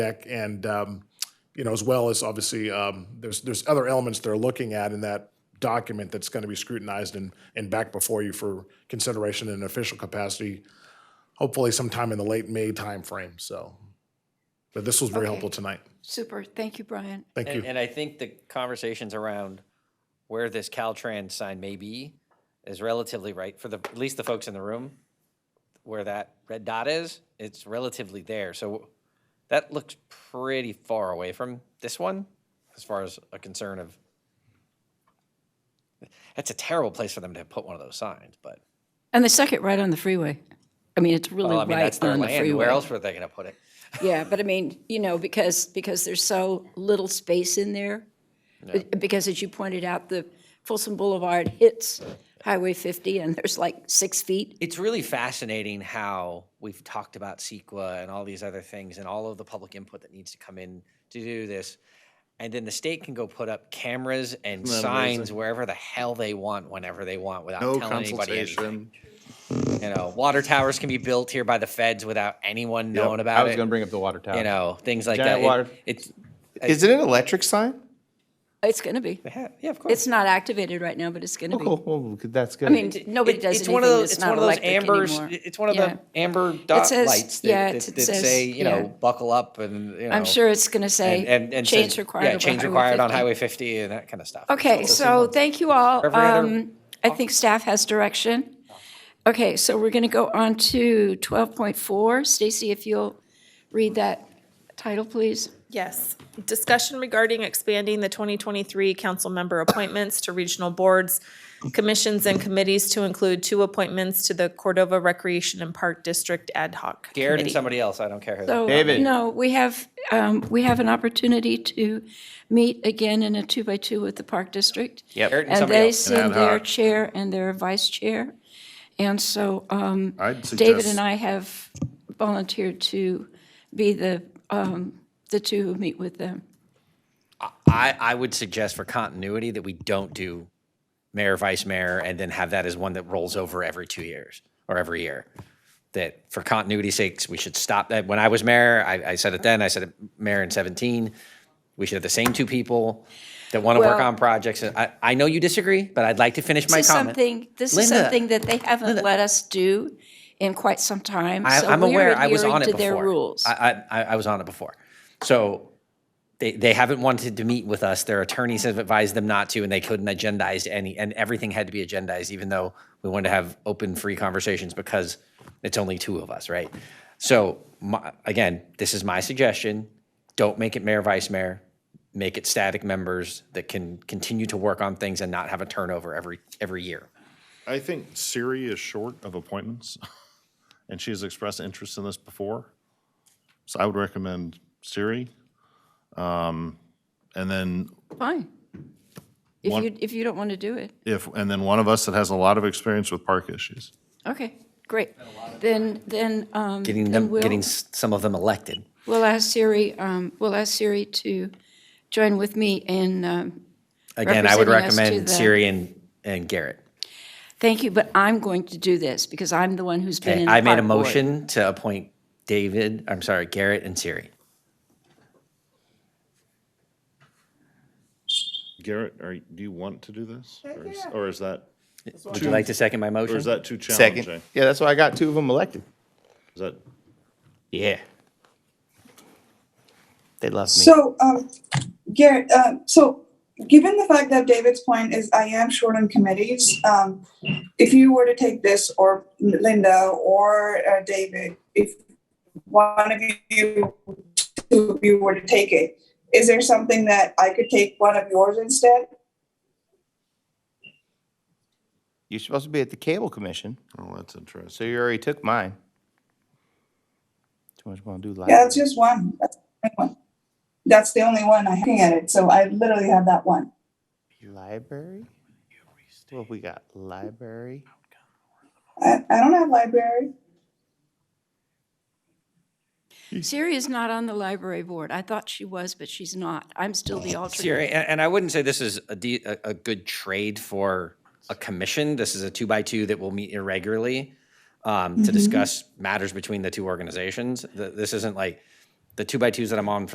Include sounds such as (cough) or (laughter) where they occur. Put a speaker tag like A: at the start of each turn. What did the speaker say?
A: deck and, um, you know, as well as obviously, um, there's, there's other elements they're looking at in that document that's going to be scrutinized and, and back before you for consideration in an official capacity, hopefully sometime in the late May timeframe, so. But this was very helpful tonight.
B: Super. Thank you, Brian.
A: Thank
C: And,
A: you.
C: and I think the conversations around where this Caltrans sign may be is relatively right for the, at least the folks in the room, where that red dot is, it's relatively there. So that looks pretty far away from this one, as far as a concern of, that's a terrible place for them to put one of those signs, but,
B: And they suck it right on the freeway. I mean, it's really
C: well, I mean, that's
B: right
C: their
B: on the
C: land. Where
B: freeway.
C: else were they gonna put it?
B: Yeah, but I mean, you know, because, because there's so little space in there. Be- Because as you pointed out, the Folsom Boulevard hits Highway 50 and there's like six feet.
C: It's really fascinating how we've talked about CEQA and all these other things and all of the public input that needs to come in to do this. And then the state can go put up cameras and signs wherever the hell they want, whenever they want, without
D: No
C: telling anybody anything.
D: consultation.
C: You know, water towers can be built here by the feds without anyone knowing
E: I
C: about
E: was
C: it.
E: gonna bring up the water tower.
C: You know, things like that.
E: Giant
C: It-
E: water-
C: It's,
D: Is it an electric sign?
B: It's going to be.
C: yeah, yeah, of course.
B: It's not activated right now, but it's going to
E: Oh,
B: be.
E: cool. Well, that's good.
B: I mean, nobody
C: It-
B: does
C: it's
B: anything
C: one of those-
B: that's not
C: one of those
B: electric
C: ambers-
B: anymore.
C: It's one of
B: Yeah.
C: the amber dot
B: says-
C: lights
B: yeah,
C: that,
B: it-
C: that,
B: it
C: that
B: says-
C: say, you
B: yeah.
C: know, buckle up and, you know.
B: I'm sure it's going to
C: Oh. and- and-
B: say,
C: and
B: change
C: says-
B: required.
C: Yeah,
B: over
C: change
B: Highway
C: required on
B: 50."
C: Highway 50 and that kind of stuff.
B: Okay, so thank you all.
C: Every other-
B: Um, I think staff has direction. Okay, so we're going to go on to 12.4. Stacy, if you'll read that title, please.
F: Yes. Discussion regarding expanding the 2023 council member appointments to regional boards, commissions, and committees to include two appointments to the Cordova Recreation and Park District Ad hoc
C: Garrett and
F: Committee.
C: somebody else, I don't care who.
B: So,
E: David.
B: Oh, uh, No, we have, um, we have an opportunity to meet again in a two-by-two with the Park District.
C: Garrett and
B: And
C: somebody
B: they
C: else.
B: send their chair and their vice chair. And so um,
D: I'd
B: David
D: suggest-
B: and I have volunteered to be the, um, the two who meet with them.
C: I, I would suggest for continuity that we don't do mayor, vice mayor, and then have that as one that rolls over every two years or every year. That for continuity's sakes, we should stop that. When I was mayor, I, I said it then, I said it mayor in 17. We should have the same two people that want to work
B: Well-
C: on projects. And I, I know you disagree, but I'd like to finish my
B: This is
C: comment.
B: something, this is
C: Linda.
B: something that they haven't let us do in quite some time.
C: I,
B: so
C: I'm
B: we're
C: aware. I was
B: adhering
C: on it
B: to
C: before.
B: their rules.
C: I, I, I- I was on it before. So they, they haven't wanted to meet with us. Their attorneys have advised them not to, and they couldn't agendize any, and everything had to be agendized, even though we wanted to have open, free conversations because it's only two of us, right? So my, again, this is my suggestion. Don't make it mayor, vice mayor. Make it static members that can continue to work on things and not have a turnover every every year.
G: I think Siri is short of appointments, (laughs) and she has expressed interest in this before. So I would recommend Siri. Um, And then
B: Fine. If
G: One-
B: you, if you don't want to do it.
G: if, and then one of us that has a lot of experience with park issues.
B: Okay, great. Then, then, um,
C: Getting
B: then
C: them,
B: we'll-
C: getting s- some of them elected.
B: We'll ask Siri, um, we'll ask Siri to join with me in, um,
C: Again, I
B: representing
C: would
B: us to
C: recommend
B: the-
C: Siri and, and Garrett.
B: thank you, but I'm going to do this because I'm the one who's been in the
C: I made a
B: park board.
C: motion to appoint David, I'm sorry, Garrett and Siri.
G: Garrett, are, you- do you want to do this? Or is- Or is that,
C: Would you like to second my
G: or
C: motion?
G: is that too
E: second.
G: challenging?
E: Yeah, that's why I got two of them elected.
G: Is that,
E: Yeah. They love me.
H: So, um, Garrett, uh, so given the fact that David's point is I am short on committees, um, if you were to take this or Linda or uh, David, if one of you, two of you were to take it, is there something that I could take one of yours instead?
E: You're supposed to be at the cable commission,
G: oh, that's interesting.
E: so you already took mine. Too much want to do live.
H: Yeah, that's just one. That's the only one. That's the only one I can at it. So I literally have that one.
E: Library? Well, we got library.
H: I, I don't have library.
B: Siri is not on the library board. I thought she was, but she's not. I'm still the alternate.
C: Oh, Siri, and, and I wouldn't say this is a, de- a, a good trade for a commission. This is a two by two that will meet
B: Mm-hmm.
C: irregularly um, to discuss matters between the two organizations. Th- This isn't like, the two by twos that I'm on